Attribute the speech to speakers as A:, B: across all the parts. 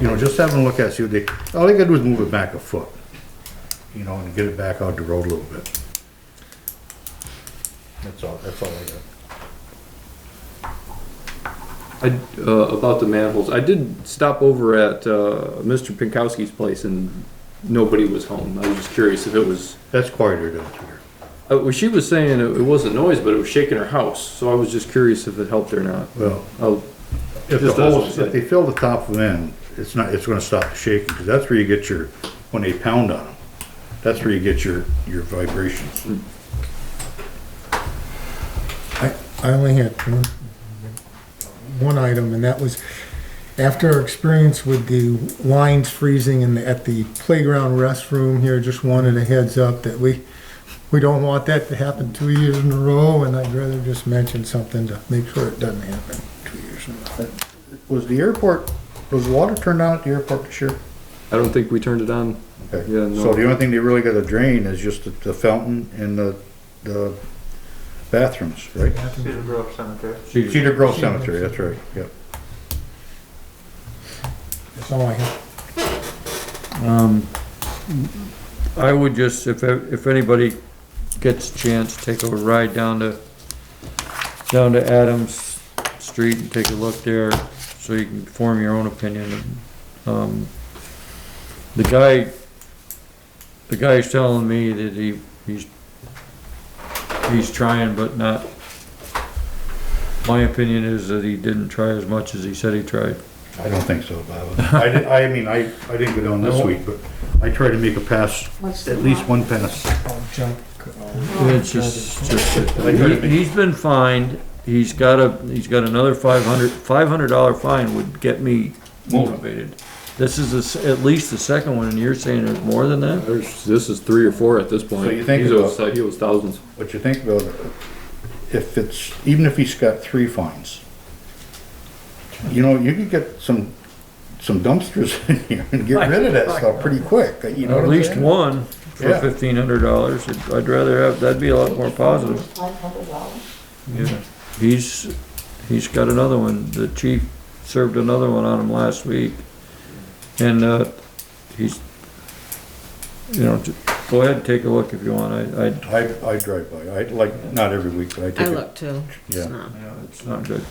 A: You know, just having a look at, it, see what they, all they gotta do is move it back a foot. You know, and get it back out the road a little bit. That's all, that's all I got.
B: I, uh, about the manholes, I did stop over at, uh, Mr. Pinkowski's place and nobody was home. I was just curious if it was,
A: That's quieter down here.
B: uh, well, she was saying it it wasn't noise, but it was shaking her house, so I was just curious if it helped or not.
A: Well,
B: Oh,
A: if the
B: Just doesn't
A: holes, if they fill the top of in, it's not, it's gonna stop the shaking, because that's where you get your, when they pound on them. That's where you get your, your vibrations.
C: I, I only had one, one item, and that was after our experience with the lines freezing in the, at the playground restroom here, just wanted a heads up that we, we don't want that to happen two years in a row, and I'd rather just mention something to make sure it doesn't happen two years in a row.
A: Was the airport, was the water turned on at the airport this year?
B: I don't think we turned it on.
A: Okay.
B: Yeah, no.
A: So the only thing they really gotta drain is just the- the fountain and the, the bathrooms, right?
D: Cedar Grove Cemetery.
A: Cedar Grove Cemetery, that's right, yep.
C: That's all I have.
E: I would just, if, if anybody gets a chance, take a ride down to, down to Adams Street and take a look there, so you can form your own opinion. Um, The guy, the guy's telling me that he, he's, he's trying, but not, my opinion is that he didn't try as much as he said he tried.
A: I don't think so, Bob. I, di- I mean, I, I didn't go down this week, but I tried to make a pass,
F: What's
A: at
F: the
A: least
F: problem?
A: one pass.
C: I'll jump. uh, I'll-
E: It's just, just, he- he's been fined, he's got a, he's got another five hundred, five hundred dollar fine would get me motivated. This is the s- at least the second one, and you're saying there's more than that?
B: There's, this is three or four at this point.
A: So you think
B: He owes-
A: about-
B: He owes thousands.
A: What you think about, if it's, even if he's got three fines, you know, you could get some, some dumpsters in here and get rid of that stuff pretty quick, you know
E: At
A: what I'm
E: least
A: saying?
E: one for
A: Yeah.
E: fifteen hundred dollars, I'd rather have, that'd be a lot more positive.
F: $500.
E: Yeah. He's, he's got another one, the chief served another one on him last week. And, uh, he's, you know, j- go ahead, and take a look if you want, I, I,
A: I, I drive by, I, like, not every week, but I
F: I
A: take it.
F: look too. It's
A: Yeah.
F: not-
E: It's not good.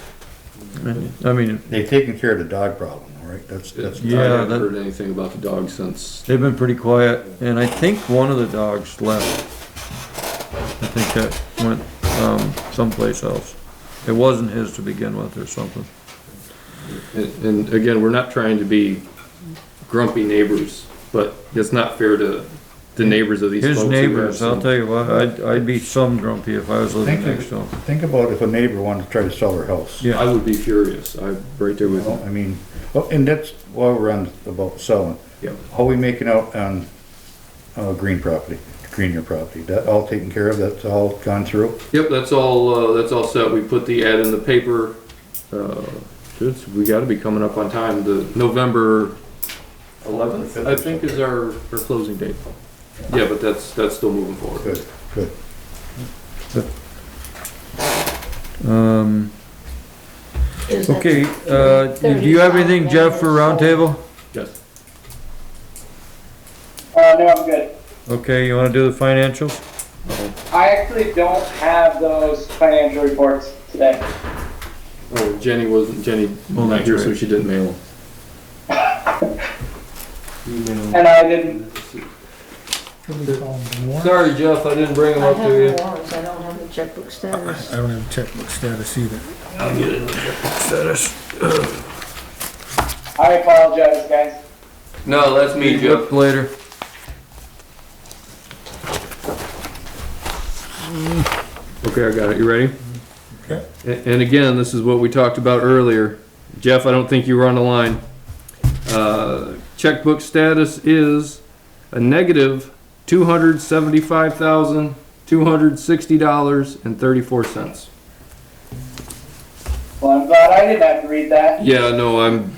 E: I mean,
A: They've taken care of the dog problem, all right? That's, that's.
B: I haven't
E: that-
B: heard anything about the dog since.
E: they've been pretty quiet, and I think one of the dogs left. I think that went, um, someplace else. It wasn't his to begin with or something.
B: And, and again, we're not trying to be grumpy neighbors, but it's not fair to the neighbors of these folks.
E: His
B: who have
E: neighbors, I'll
B: some-
E: tell you what, I'd, I'd be some grumpy if I was living
A: Thank you.
E: next to him.
A: Think about if a neighbor wanted to try to sell her house.
E: Yeah.
B: I would be furious. I'm right there
A: You
B: with
A: know,
B: you.
A: I mean, well, and that's why we're on about selling.
B: Yeah.
A: How we making out on, uh, green property, green your property? That all taken care of? That's all gone through?
B: Yep, that's all, uh, that's all set. We put the ad in the paper. Uh, it's- we gotta be coming up on time. The November eleventh, I think, is our, our closing date. Yeah, but that's, that's still moving forward.
A: Good, good.
E: Um,
F: Is that-
E: okay, uh, do you have anything, Jeff, for roundtable?
B: Yes.
G: Uh, no, I'm good.
E: Okay, you wanna do the financials?
G: I actually don't have those financial reports today.
B: Oh, Jenny wasn't, Jenny, well, not here, so she didn't mail them.
G: And I didn't,
C: What do we call them, warrant?
E: Sorry, Jeff, I didn't bring them
F: I
E: up to you.
F: have warrants, I don't have the checkbook status.
C: I don't have checkbook status either.
G: I apologize, guys.
B: No, that's me,
E: Meet
B: Jeff.
E: up later.
B: Okay, I got it. You ready?
C: Okay.
B: A- And again, this is what we talked about earlier. Jeff, I don't think you were on the line. Uh, Checkbook status is a negative two hundred seventy-five thousand, two hundred sixty dollars and thirty-four cents.
G: Well, I'm glad I didn't have to read that.
B: Yeah, no, I'm,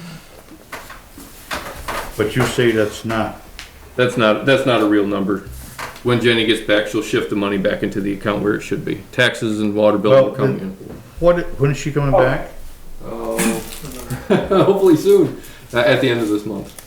A: But you say that's not,
B: that's not, that's not a real number. When Jenny gets back, she'll shift the money back into the account where it should be. Taxes and water bill
A: Well,
B: will come in.
A: what, when is she coming back?
B: Oh, hopefully soon. uh, at the end of this month.